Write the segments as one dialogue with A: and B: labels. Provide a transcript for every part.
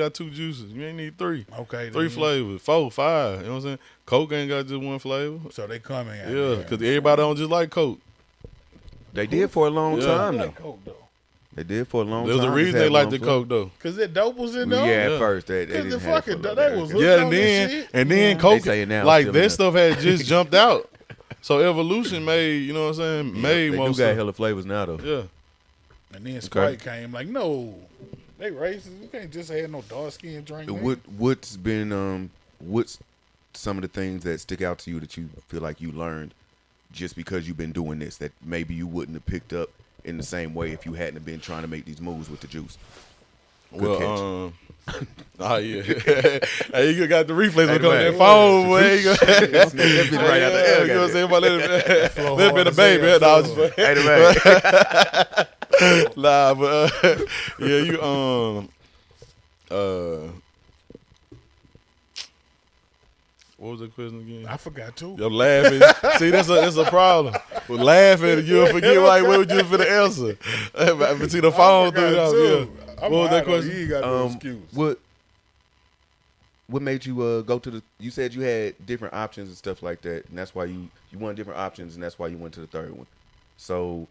A: got two juices. You ain't need three.
B: Okay, then
A: Three
B: you-
A: flavors, four, five. You know what I'm saying? Coke ain't got just one flavor.
B: So they coming. out
A: Yeah,
B: there.
A: because everybody don't just like Coke.
C: They did for a long
A: Yeah.
C: time
B: Like
C: though.
B: coke though,
C: They did for a long
A: There's
C: time.
A: a
C: Just
A: reason they
C: had
A: like
C: one
A: the
C: flavor.
A: Coke though.
B: cause that dope was in
C: Yeah,
B: there.
C: at
A: Yeah.
C: first they, they
B: Cause
C: didn't
B: the
C: have
B: fucking
C: it for a
B: they
C: long
B: was
C: time.
A: Yeah, and
B: on that
A: then
B: shit.
A: and then
C: They
A: Coke
C: say it now,
A: like
C: still
A: that
C: enough.
A: stuff had just jumped out. So evolution made, you know what I'm saying? made
C: They do
A: most
C: got
A: of
C: hella flavors now though.
A: Yeah.
B: And then Sprite came like, no, they racist. You can't just have no dark skin drink. man.
C: What what's been um what's some of the things that stick out to you that you feel like you learned just because you've been doing this that maybe you wouldn't have picked up in the same way if you hadn't have been trying to make these moves with the juice. Good catch.
A: well, um, oh yeah. hey, you got the replays
C: Hey,
A: hey, on that
C: man.
A: phone, boy. You got-
C: That bit right out the
A: Yeah,
C: air,
A: you know what I'm
C: goddamn.
A: saying? About that-
B: Flow
A: That
B: hard
A: been a
B: as hell,
A: baby. No, I was just-
B: too.
C: Hey, the man.
A: Nah, but uh, yeah, you um uh what was the question again?
B: I forgot too.
A: I'm laughing. See, that's a that's a problem. With laughing, you'll forget like what would you for the answer? but see the phone through it
B: forgot
A: out.
B: too.
A: Yeah.
B: I'm
A: What was that
B: hot on
A: question?
B: you, You got no
C: um,
B: excuse.
C: what what made you uh, go to the? You said you had different options and stuff like that, and that's why you you wanted different options, and that's why you went to the third one. So,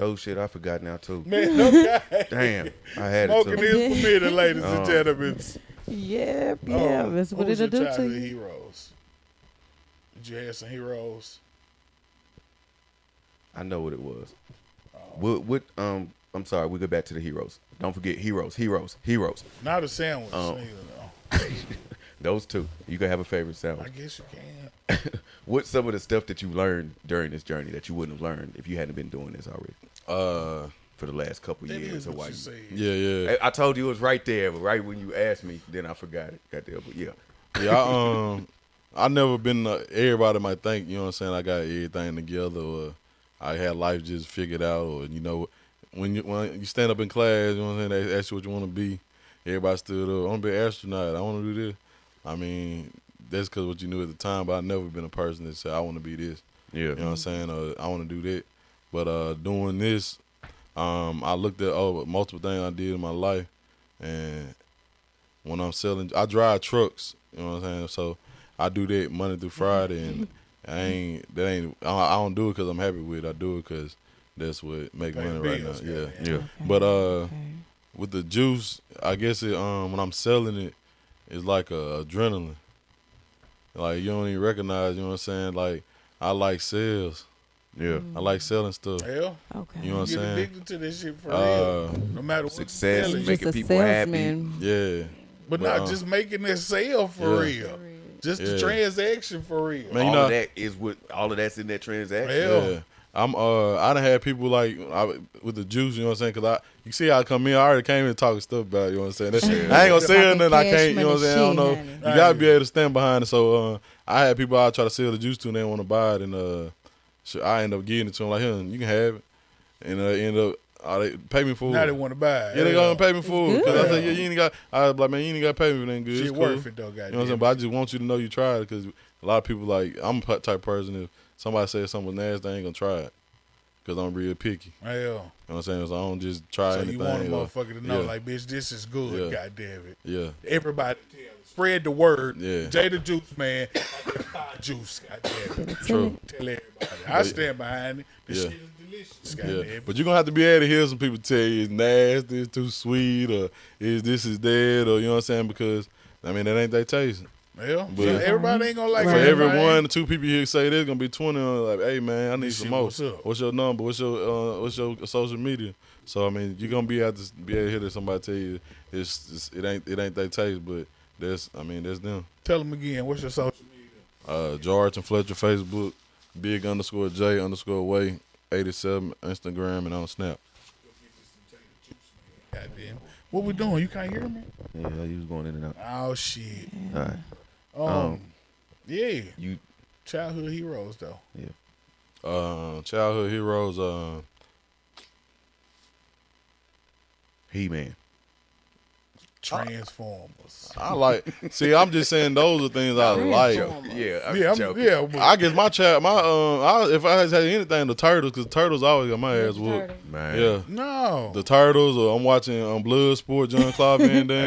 C: oh shit, I forgot now too.
B: Man, no guy
C: Damn, I had it.
B: smoking
C: Too.
B: is permitted, ladies and
C: Oh.
B: gentlemen.
D: Yep,
B: Oh,
D: yeah. That's what
B: who was
D: it'll
B: your
D: do to
B: childhood
D: you.
B: heroes? Did you have some heroes?
C: I know what it was. What what um. I'm sorry. We go back to the heroes. Don't forget heroes, heroes, heroes.
B: Not a sandwich.
C: Oh.
B: neither, though.
C: Those two. You can have a
B: I
C: favorite sandwich.
B: guess you can.
C: What's some of the stuff that you learned during this journey that you wouldn't have learned if you hadn't been doing this already
A: Uh
C: for the last couple
B: That
C: years
B: is
C: or
B: what
C: why
B: you
C: you
B: said.
A: yeah, yeah.
C: I, I told you it was right there, but right when you asked me, then I forgot it. Goddamn, but yeah.
A: Yeah, I, um, I never been. Uh, everybody might think you know what I'm saying. I got everything together, or I had life just figured out, or you know, when you when you stand up in class, you know what I'm saying. They ask you what you want to be. Everybody stood up. I want to be an astronaut. I want to do this. I mean, that's because what you knew at the time. But I've never been a person that said I want to be this.
C: Yeah.
A: You know what I'm saying? Uh, I want to do that. But uh, doing this, um, I looked at over multiple things I did in my life, and when I'm selling, I drive trucks. You know what I'm saying? So I do that Monday through Friday, and I ain't that ain't I I don't do it because I'm happy with it. I do it because that's what make
B: Pay the
A: money right now.
B: bills,
A: Yeah.
B: goddamn.
C: Yeah.
A: But uh,
D: Okay.
A: with the juice, I guess it um when I'm selling it, it's like a adrenaline. Like you don't even recognize. You know what I'm saying? Like I like sales.
C: Yeah.
A: I like selling stuff.
B: Hell,
D: Okay.
A: You know what
B: you
A: I'm
B: get
A: saying?
B: addicted to this shit for
A: Uh,
B: real. No matter what you
C: Success,
B: selling.
C: make-
D: just
C: making
D: a
C: people happy.
D: salesman.
A: Yeah.
B: but
A: well,
B: not
A: uh,
B: just making it sell for
A: yeah.
B: real. Just the
A: Yeah.
B: transaction for real.
A: Man, you
C: all
A: know-
C: of that is what all of that's in that transaction.
B: Hell.
A: Yeah. I'm uh I done had people like I, with the juice, you know what I'm saying? Cause I you see how I come in, I already came in talking stuff about it, you know what I'm saying? That- I ain't gonna say
D: Talking
A: nothing I
D: cash
A: can't, you know what I'm
D: money
A: saying? I don't know.
D: shit, honey.
A: You gotta be able to stand behind it. So uh I had people I try to sell the juice to and they wanna buy it and uh so I end up getting it to them like here, you can have it and uh end up uh, they pay me for
B: Now they
A: it.
B: want to buy. it.
A: Yeah, they
B: Hell.
A: gonna pay me for it. Cause I
B: good.
A: said, yeah, you ain't got. I was like, man, you ain't got to pay me for nothing good.
B: Shit
A: It's cool.
B: worth it though,
A: You know what I'm saying? But I just want you to know you tried because a lot of people like I'm a p- type of person. If somebody says something was nasty, I ain't gonna try it because I'm real picky.
B: Hell.
A: You know what I'm saying? So I don't just try
B: So
A: anything.
B: you want a
A: or-
B: motherfucker to know,
A: yeah,
B: like, bitch, this is
A: Yeah.
B: good. God damn it.
A: yeah,
B: Everybody, spread the word.
A: Yeah.
B: Jay the Juice Man, Thai juice. God damn it.
A: true.
B: Tell everybody. I stand behind it. This
A: Yeah.
B: shit is delicious. God damn
A: Yeah,
B: it.
A: but you're gonna have to be able to hear some people tell you it's nasty, it's too sweet, or is this is dead, or you know what I'm saying? Because I mean, that ain't their taste.
B: Well,
A: But-
B: so everybody ain't gonna like
A: For
D: Right.
A: every
B: everybody.
A: one, two people here say there's gonna be twenty on like, hey man, I need
B: This
A: some
B: shit,
A: more.
B: what's up?
A: your number? What's your uh, what's your social media? So I mean, you're gonna be out to be able to hear that somebody tell you it's, it's it ain't it ain't their taste, but that's I mean that's them.
B: Tell them again. What's your social media?
A: Uh, George and Fletcher Facebook, big underscore J underscore way eighty seven Instagram and on Snap.
B: God damn. it. What we doing? You can't hear me?
C: Yeah, you was going in and out.
B: Oh shit.
C: All right.
B: Um, yeah.
C: You
B: Childhood heroes though.
A: Uh, childhood heroes. Uh,
C: He Man.
B: Transformers.
A: I like. See, I'm just saying those are things I like.
C: Yeah, I'm
B: yeah, I'm,
C: joking.
B: yeah. But
A: I guess my child, my um, I, if I had anything, the turtles, because turtles always got my ass whooped.
C: Man.
A: Yeah, uh,
B: no.
A: the turtles, or I'm watching um, Bloodsport, John Claude Van Damme.